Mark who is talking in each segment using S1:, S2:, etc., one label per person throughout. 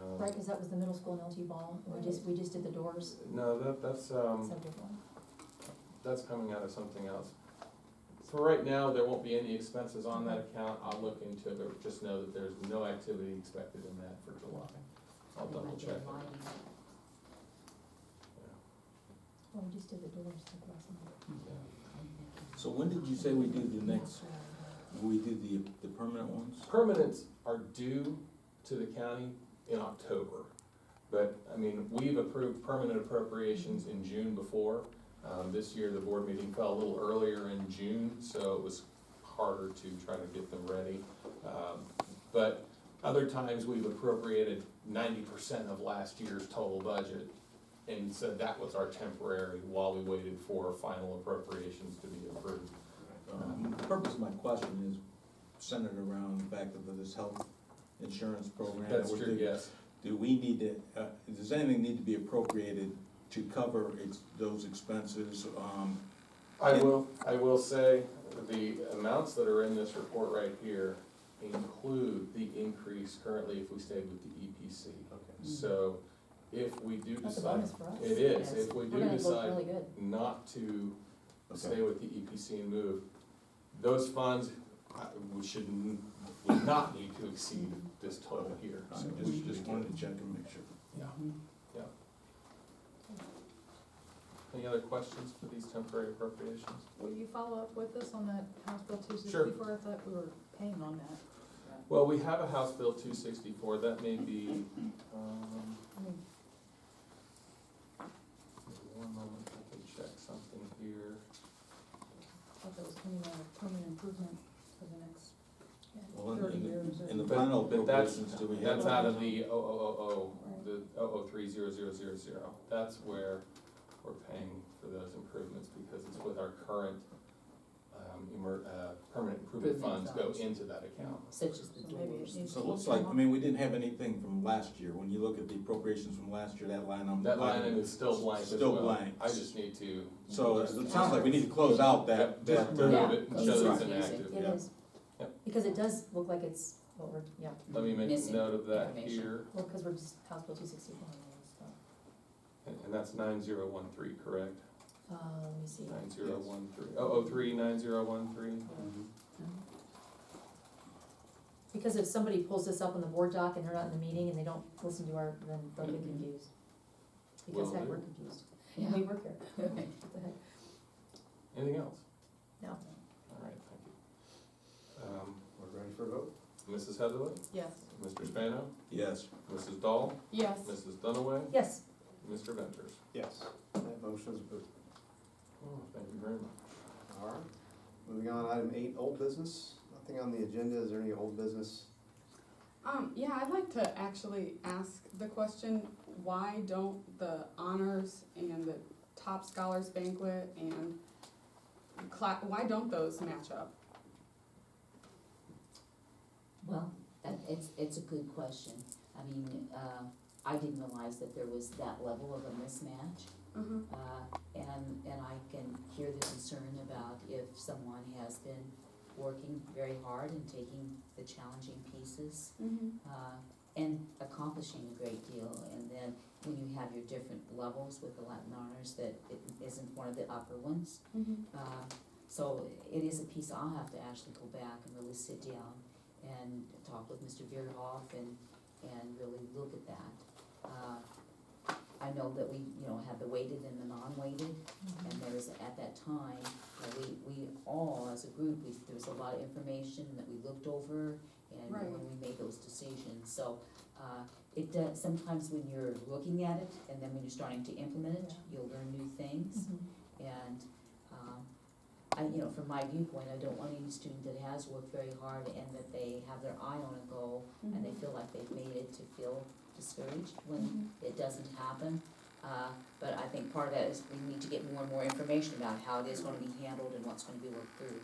S1: Um,
S2: was the middle school and LT ball, we just, we just did the doors,
S1: No, that, that's, um,
S2: subject one.
S1: that's coming out of something else. For right now, there won't be any expenses on that account, I'll look into it, but just know that there's no activity expected in that for July. I'll double check. it.
S2: Well, we just did the doors like last month.
S1: Yeah, yeah.
S3: So when did you say we do the next, we do the, the permanent ones?
S1: Permanents are due to the county in October. But, I mean, we've approved permanent appropriations in June before. Um, this year, the board meeting fell a little earlier in June, so it was harder to try to get them ready. Um, But other times, we've appropriated ninety percent of last year's total budget. And so that was our temporary while we waited for final appropriations to be approved.
S3: Um, the Purpose of my question is centered around the fact of this health insurance program. that
S1: That's
S3: we're
S1: true,
S3: doing.
S1: yes.
S3: Do we need to, uh, does anything need to be appropriated to cover ex- those expenses? Um,
S1: I will, I will say, the amounts that are in this report right here include the increase currently if we stayed with the EPC. So if we do
S2: Hmm. That's a
S1: decide,
S2: bonus for us.
S1: it is,
S4: Yes.
S1: if we
S2: We're
S1: do
S2: gonna look
S1: decide
S2: really good.
S1: not to
S3: Okay.
S1: stay with the EPC and move, those funds, uh, we should, n- would not need to exceed
S2: Mm-hmm.
S1: this total here.
S3: I
S1: So we
S3: just,
S1: should
S3: just wanted to check and make sure.
S1: Yeah.
S2: Mm-hmm.
S1: Any other questions for these temporary appropriations?
S5: Will you follow up with us on that House Bill two
S1: Sure.
S5: sixty-four? I thought we were paying on that.
S1: Well, we have a House Bill two sixty-four, that may be, um,
S5: I mean,
S1: one moment, I can check something here.
S5: I thought that was coming
S2: uh,
S5: out of permanent improvement for the next
S3: Well, in-
S5: thirty
S3: in the-
S5: years or.
S3: in the
S1: But-
S3: final
S1: but that's-
S3: appropriations, do we have?
S1: That's out of the oh oh oh oh, the oh oh three zero zero zero zero, that's where we're paying for those improvements, because it's with our current, um, emer, uh, permanent improvement funds
S4: Improvement
S1: go
S4: funds.
S1: into that account.
S4: Such as the
S5: So maybe it
S4: doors.
S5: needs
S3: So
S5: to
S3: it looks
S5: come
S3: like, I
S5: up.
S3: mean, we didn't have anything from last year. When you look at the appropriations from last year, that line item.
S1: That line item is still blank as well.
S3: Still blank.
S1: I just need to.
S3: So it sounds like we need to close out that,
S1: Just
S3: that,
S1: remove
S3: uh,
S2: Yeah.
S1: it, and
S3: that's
S1: show that it's
S3: right.
S1: inactive.
S2: It
S3: Yeah.
S2: is.
S1: Yep.
S2: Because it does look like it's, what we're, yeah,
S1: Let me make a
S4: Missing
S1: note of that
S4: information.
S1: here.
S2: well, because we're just House Bill two sixty-four and all that stuff.
S1: And, and that's nine zero one three, correct?
S2: Uh, let me see.
S1: Nine zero one three, oh oh three, nine zero one three?
S2: Uh, Because if somebody pulls this up on the board doc and they're not in the meeting and they don't listen to our, then they'll get
S4: Mhm.
S2: confused. Because
S1: Will
S2: heck,
S1: do.
S2: we're confused.
S4: Yeah.
S2: We work here. What the heck?
S1: Anything else?
S2: No.
S1: All right, thank you. Um,
S6: We're ready for a vote?
S1: Mrs. Heatherly,
S5: Yes.
S1: Mr. Spano,
S3: yes.
S1: Mrs. Dahl,
S5: Yes.
S1: Mrs. Dunaway,
S2: Yes,
S1: Mr. Venters.
S6: Yes. That motion's approved.
S1: Oh, thank you very much.
S6: All right. Moving on, item eight, old business. Nothing on the agenda. Is there any old business?
S7: Um, yeah, I'd like to actually ask the question, why don't the honors and the top scholars banquet and cla- why don't those match up?
S4: Well, that, it's, it's a good question. I mean, uh, I didn't realize that there was that level of a mismatch.
S7: Uh-huh.
S4: Uh, and, and I can hear the concern about if someone has been working very hard and taking the challenging pieces,
S7: Mm-hmm.
S4: uh, and accomplishing a great deal, and then when you have your different levels with the Latin honors, that it isn't one of the upper ones.
S7: Mm-hmm.
S4: Uh, So it is a piece I'll have to actually go back and really sit down and talk with Mr. Beerhoff and, and really look at that. Uh, I know that we, you know, had the weighted and the non-weighted,
S2: Mm-hmm.
S4: and there was, at that time, uh, we, we all, as a group, we, there was a lot of information that we looked over and uh,
S7: Right.
S4: when we made those decisions, so, uh, it does, sometimes when you're looking at it and then when you're starting to implement it,
S2: Yeah.
S4: you'll learn new things.
S2: Mhm.
S4: And, um, I, you know, from my viewpoint, I don't want any student that has worked very hard and that they have their eye on a goal and they
S7: Mm-hmm.
S4: feel like they've made it to feel discouraged when it doesn't happen. Uh, but I think part of that is we need to get more and more information about how it is gonna be handled and what's gonna be worked through.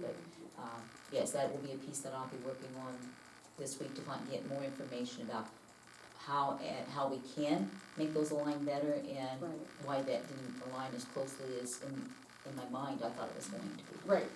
S4: But, uh, yes, that will be a piece that I'll be working on this week to find, get more information about how, and how we can make those align better and
S7: Mm-hmm. Right,
S4: why that didn't align as closely as in, in my mind I thought it was going to.
S7: right.